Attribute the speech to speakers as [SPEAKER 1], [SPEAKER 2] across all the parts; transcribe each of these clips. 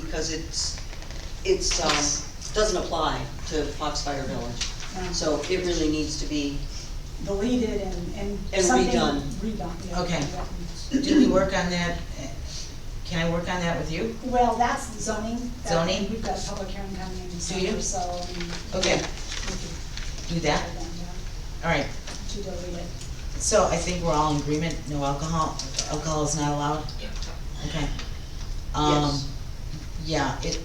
[SPEAKER 1] because it's, it's, um, doesn't apply to Foxfire Village.
[SPEAKER 2] Um,
[SPEAKER 1] So it really needs to be,
[SPEAKER 2] Deleted and, and
[SPEAKER 1] And
[SPEAKER 2] something
[SPEAKER 1] redone.
[SPEAKER 2] redone, yeah.
[SPEAKER 3] Okay. Did we work on that? Can I work on that with you?
[SPEAKER 2] Well, that's zoning. that-
[SPEAKER 3] Zoning?
[SPEAKER 2] We've got a public hearing coming in
[SPEAKER 3] you?
[SPEAKER 2] December, so. um,
[SPEAKER 3] Okay,
[SPEAKER 2] we could
[SPEAKER 3] do that,
[SPEAKER 2] put them down
[SPEAKER 3] all right.
[SPEAKER 2] To delete it.
[SPEAKER 3] So I think we're all in agreement, no alcohol, alcohol is not allowed?
[SPEAKER 1] Yeah.
[SPEAKER 3] Okay. Um,
[SPEAKER 1] Yes.
[SPEAKER 3] yeah, it,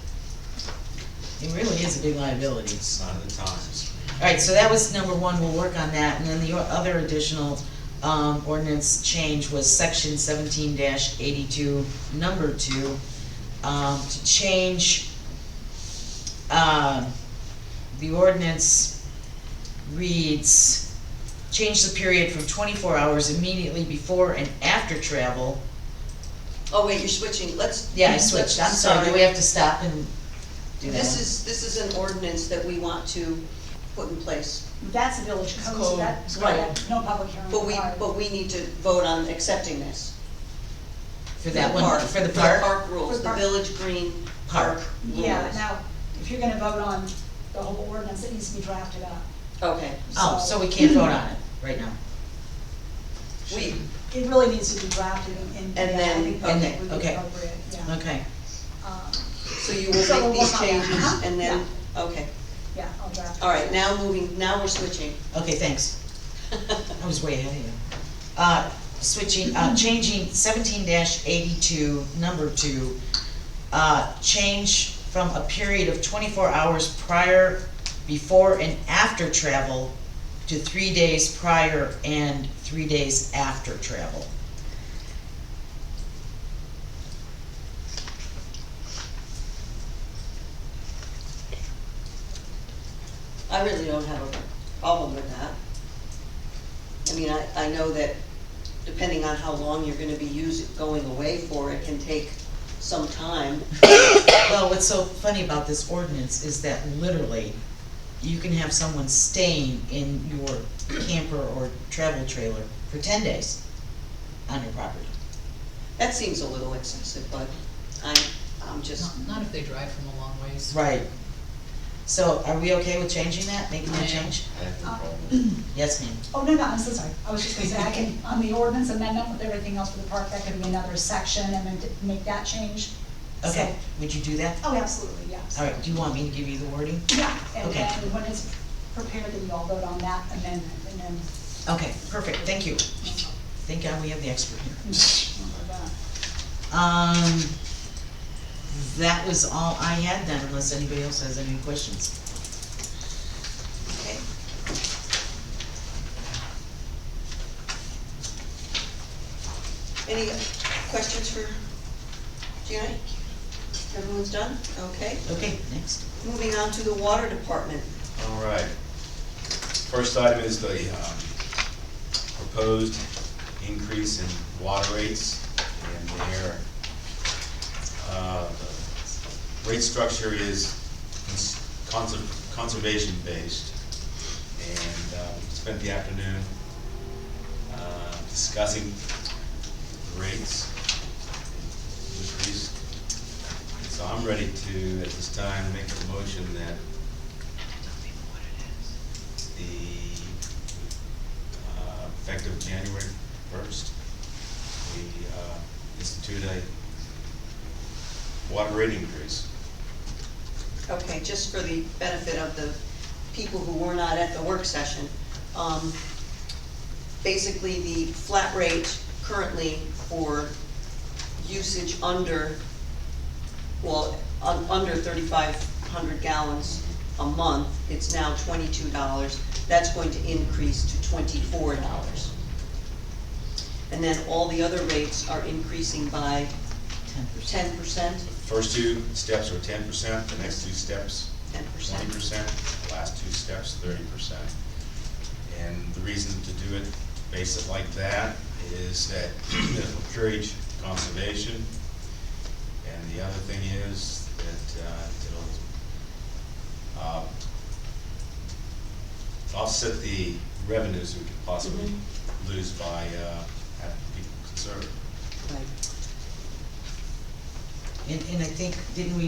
[SPEAKER 3] it really is a big liability.
[SPEAKER 4] It's not the times.
[SPEAKER 3] Alright, so that was number one, we'll work on that, and then the o- other additional, um, ordinance change was section seventeen eighty-two, number two, um, to change, uh, the ordinance reads, change the period from twenty-four hours immediately before and after travel.
[SPEAKER 1] oh wait, you're switching, let's.
[SPEAKER 3] Yeah, I switched, I'm sorry, do we have to stop and do that?
[SPEAKER 1] This
[SPEAKER 3] one?
[SPEAKER 1] is, this is an ordinance that we want to put in place,
[SPEAKER 2] That's a village code, so
[SPEAKER 3] code,
[SPEAKER 2] that's,
[SPEAKER 3] right.
[SPEAKER 2] yeah, no public hearing
[SPEAKER 1] but we,
[SPEAKER 2] required.
[SPEAKER 1] but we need to vote on accepting this.
[SPEAKER 3] For that one,
[SPEAKER 1] Park.
[SPEAKER 3] for the park?
[SPEAKER 1] Park
[SPEAKER 2] For
[SPEAKER 1] rules,
[SPEAKER 2] the
[SPEAKER 1] the
[SPEAKER 2] park.
[SPEAKER 1] village green
[SPEAKER 3] Park.
[SPEAKER 1] park
[SPEAKER 2] Yeah,
[SPEAKER 1] rules.
[SPEAKER 2] now, if you're gonna vote on the whole ordinance, it needs to be drafted up.
[SPEAKER 1] Okay,
[SPEAKER 3] Oh, so we can't vote on it right now?
[SPEAKER 1] we,
[SPEAKER 2] It really needs to be drafted and,
[SPEAKER 1] And
[SPEAKER 2] and yeah, I
[SPEAKER 1] then-
[SPEAKER 2] think
[SPEAKER 1] and
[SPEAKER 2] that
[SPEAKER 1] then-
[SPEAKER 2] would be
[SPEAKER 3] okay.
[SPEAKER 2] appropriate, yeah.
[SPEAKER 3] Okay.
[SPEAKER 2] Um,
[SPEAKER 1] so you
[SPEAKER 2] So
[SPEAKER 1] will make
[SPEAKER 2] we'll
[SPEAKER 1] these
[SPEAKER 2] work on that. Uh-huh.
[SPEAKER 1] changes and then, okay,
[SPEAKER 2] Yeah, I'll draft. it.
[SPEAKER 1] all right, now moving, now we're switching.
[SPEAKER 3] Okay, thanks. I was way ahead of you. Uh, switching, uh, changing seventeen eighty-two, number two, uh, change from a period of twenty-four hours prior, before and after travel to three days prior and three days after travel.
[SPEAKER 1] I really don't have a problem with that. I mean, I, I know that depending on how long you're gonna be using, going away for, it can take some time.
[SPEAKER 3] Well, what's so funny about this ordinance is that literally, you can have someone staying in your camper or travel trailer for ten days on your property.
[SPEAKER 1] That seems a little excessive, but I, I'm just,
[SPEAKER 5] Not not if they drive from a long ways.
[SPEAKER 3] Right. So are we okay with changing that, making that change?
[SPEAKER 4] I have no problem.
[SPEAKER 3] Yes, ma'am.
[SPEAKER 2] Oh, no, no, I'm so sorry. I was just gonna say, I can, on the ordinance amendment with everything else for the park, that could be another section and then to make that change. So-
[SPEAKER 3] Okay, would you do that?
[SPEAKER 2] Oh, absolutely, yeah.
[SPEAKER 3] All right, do you want me to give you the wording?
[SPEAKER 2] Yeah, and
[SPEAKER 3] Okay.
[SPEAKER 2] then when it's prepared, then you all vote on that amendment and then.
[SPEAKER 3] Okay, perfect, thank you. Thank God we have the expert here. Um, that was all I had then, unless anybody else has any questions.
[SPEAKER 1] okay. Any questions for Janet? Everyone's done? Okay.
[SPEAKER 3] Okay, next.
[SPEAKER 1] Moving on to the water department.
[SPEAKER 4] All right. First item is the um, proposed increase in water rates and their, uh, the rate structure is conser- conservation-based. And uh, spent the afternoon uh, discussing rates increase. So I'm ready to, at this time, make a motion that the, uh, effective January first, we, uh, institute a water rate increase.
[SPEAKER 1] Okay, just for the benefit of the people who were not at the work session, um, basically the flat rate currently for usage under, well, un- under thirty-five hundred gallons a month, it's now twenty-two dollars. That's going to increase to twenty-four dollars. And then all the other rates are increasing by
[SPEAKER 3] Ten percent.
[SPEAKER 1] ten percent,
[SPEAKER 4] The first two steps are ten percent, the next two steps
[SPEAKER 1] ten percent.
[SPEAKER 4] twenty percent, the last two steps thirty percent. And the reason to do it, base it like that, is that it'll encourage conservation. And the other thing is that uh, it'll uh, offset the revenues we could possibly lose by uh, having people conserve.
[SPEAKER 1] Right.
[SPEAKER 3] And, and I think, didn't we